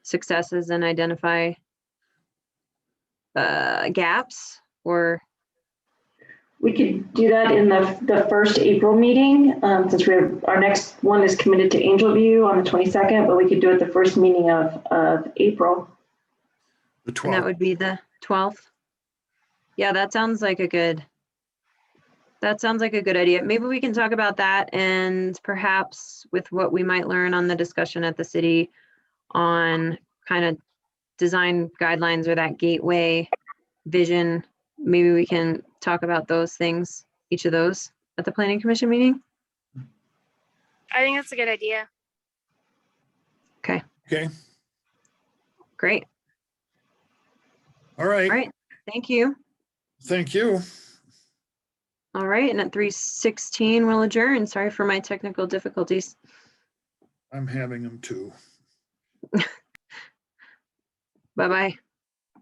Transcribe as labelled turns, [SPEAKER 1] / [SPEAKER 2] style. [SPEAKER 1] successes and identify uh, gaps or,
[SPEAKER 2] We could do that in the, the first April meeting, um, since we have, our next one is committed to Angel View on the twenty-second, but we could do it the first meeting of, of April.
[SPEAKER 3] The
[SPEAKER 1] and that
[SPEAKER 3] 12th.
[SPEAKER 1] would be the 12th. Yeah, that sounds like a good, that sounds like a good idea. Maybe we can talk about that and perhaps with what we might learn on the discussion at the city on kind of design guidelines or that gateway vision. Maybe we can talk about those things, each of those at the planning commission meeting.
[SPEAKER 4] I think that's a good idea.
[SPEAKER 3] Okay,
[SPEAKER 1] Great.
[SPEAKER 3] all
[SPEAKER 1] All
[SPEAKER 3] right.
[SPEAKER 1] right. Thank you.
[SPEAKER 3] Thank you.
[SPEAKER 1] All right, and at three sixteen, we'll adjourn. Sorry for my technical difficulties.
[SPEAKER 3] I'm having them too.
[SPEAKER 1] Bye-bye.